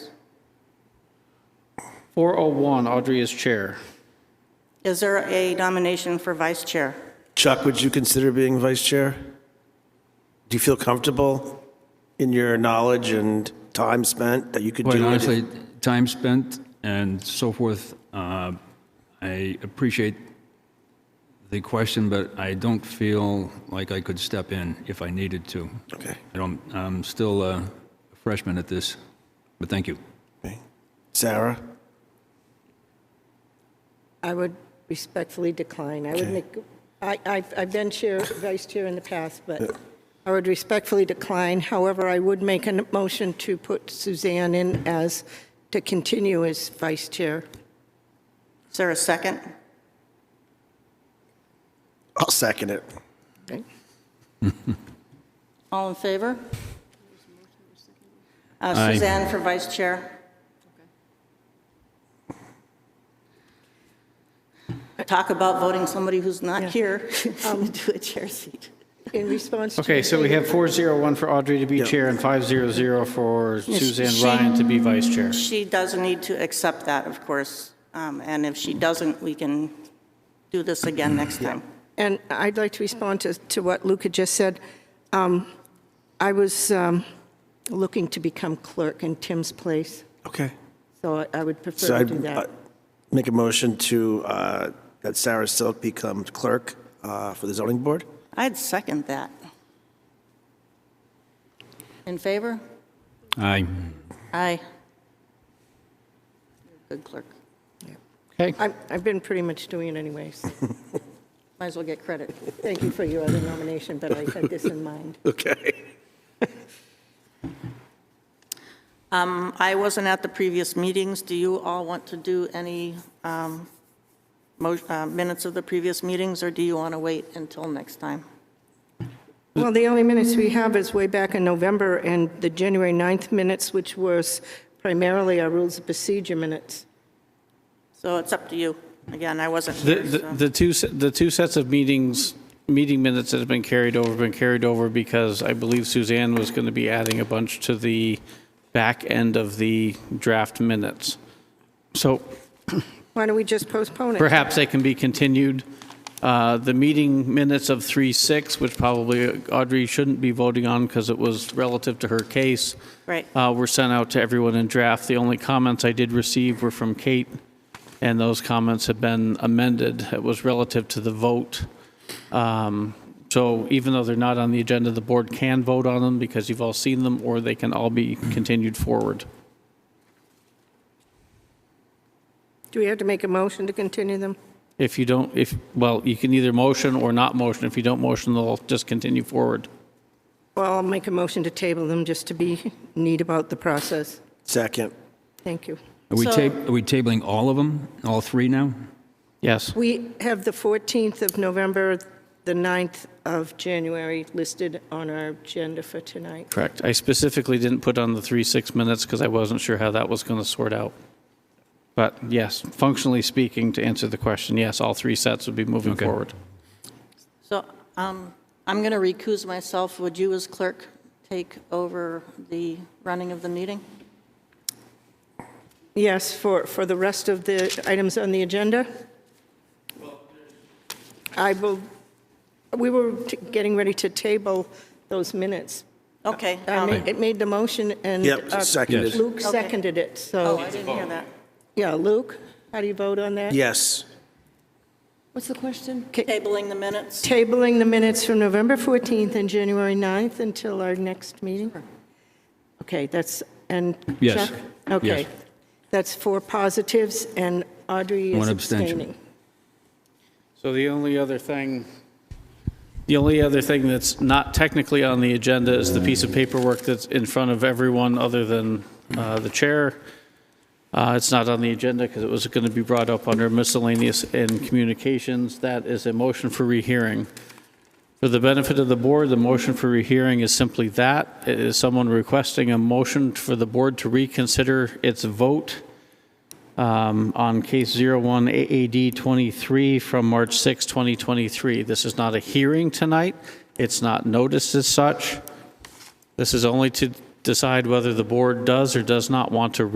401, Audrey is chair. Is there a nomination for vice chair? Chuck, would you consider being vice chair? Do you feel comfortable in your knowledge and time spent that you could Quite do it? honestly, time spent and so forth, uh, I appreciate the question, but I don't feel like I could step in if I needed to. Okay. I don't, I'm still a freshman at this, but thank you. Okay. Sarah? I would respectfully decline. I would Okay. make, I, I've, I've been chair, vice chair in the past, but I would respectfully decline. However, I would make a motion to put Suzanne in as, to continue as vice chair. Is there a second? I'll second it. Okay? All in favor? Uh, Aye. Suzanne for vice chair. Talk about voting somebody who's not here Um, to a chair seat. In response to. Okay, so we have 401 for Audrey to be Yeah. chair and 500 for Suzanne she- Ryan to be vice chair. She does need to accept that, of course, um, and if she doesn't, we can do this again next time. And I'd like to respond to, to what Luca just said. Um, I was um, looking to become clerk in Tim's place, Okay. so I- I would So prefer to I'd do uh, that. make a motion to, uh, that Sarah Silk becomes clerk uh, for the zoning board? I'd second that. In favor? Aye. Aye. Good clerk. Okay, I'm- I've been pretty much doing it anyways. Might as well get credit. Thank you for your other nomination, but I had this in mind. Okay. Um, I wasn't at the previous meetings. Do you all want to do any um, mo- uh, minutes of the previous meetings, or do you want to wait until next time? Well, the only minutes we have is way back in November and the January 9th minutes, which was primarily our rules of procedure minutes. So it's up to you. Again, I wasn't the, here, the so- the two, se- the two sets of meetings, meeting minutes that have been carried over, been carried over because I believe Suzanne was going to be adding a bunch to the back end of the draft minutes. So Why don't we just postpone it? Perhaps they can be continued. Uh, The meeting minutes of 3-6, which probably Audrey shouldn't be voting on because it was relative to her case, Right. uh, were sent out to everyone in draft. The only comments I did receive were from Kate, and those comments have been amended. It was relative to the vote. Um, So even though they're not on the agenda, the board can vote on them because you've all seen them, or they can all be continued forward. Do we have to make a motion to continue them? If you don't, if, well, you can either motion or not motion. If you don't motion, they'll just continue forward. Well, I'll make a motion to table them just to be neat about the process. Second. Thank you. Are we So- tab- are we tabling all of them, all three now? Yes. We have the 14th of November, the 9th of January listed on our agenda for tonight. Correct. I specifically didn't put on the three, six minutes because I wasn't sure how that was going to sort out. But yes, functionally speaking, to answer the question, yes, all three sets would be moving Okay. forward. So um, I'm going to recuse myself. Would you, as clerk, take over the running of the meeting? Yes, for, for the rest of the items on the agenda? I will, we were t- getting ready to table those minutes. Okay. I um, ma- It made the motion and. Yep, uh, seconded. Luke Yes. seconded it, Oh, so, I didn't hear that. yeah, Luke, how do you vote on that? Yes. What's the question? Tabling the minutes? Tabling the minutes from November 14th and January 9th until our next meeting? Okay, that's, and Chuck? Yes. Okay. Yes. That's four positives, and Audrey is One abstention. abstaining. So the only other thing, the only other thing that's not technically on the agenda is the piece of paperwork that's in front of everyone other than uh, the chair. Uh, It's not on the agenda because it was going to be brought up under miscellaneous and communications. That is a motion for rehearing. For the benefit of the board, the motion for rehearing is simply that. It is someone requesting a motion for the board to reconsider its vote um, on case 01 AAD 23 from March 6, 2023. This is not a hearing tonight. It's not noticed as such. This is only to decide whether the board does or does not want to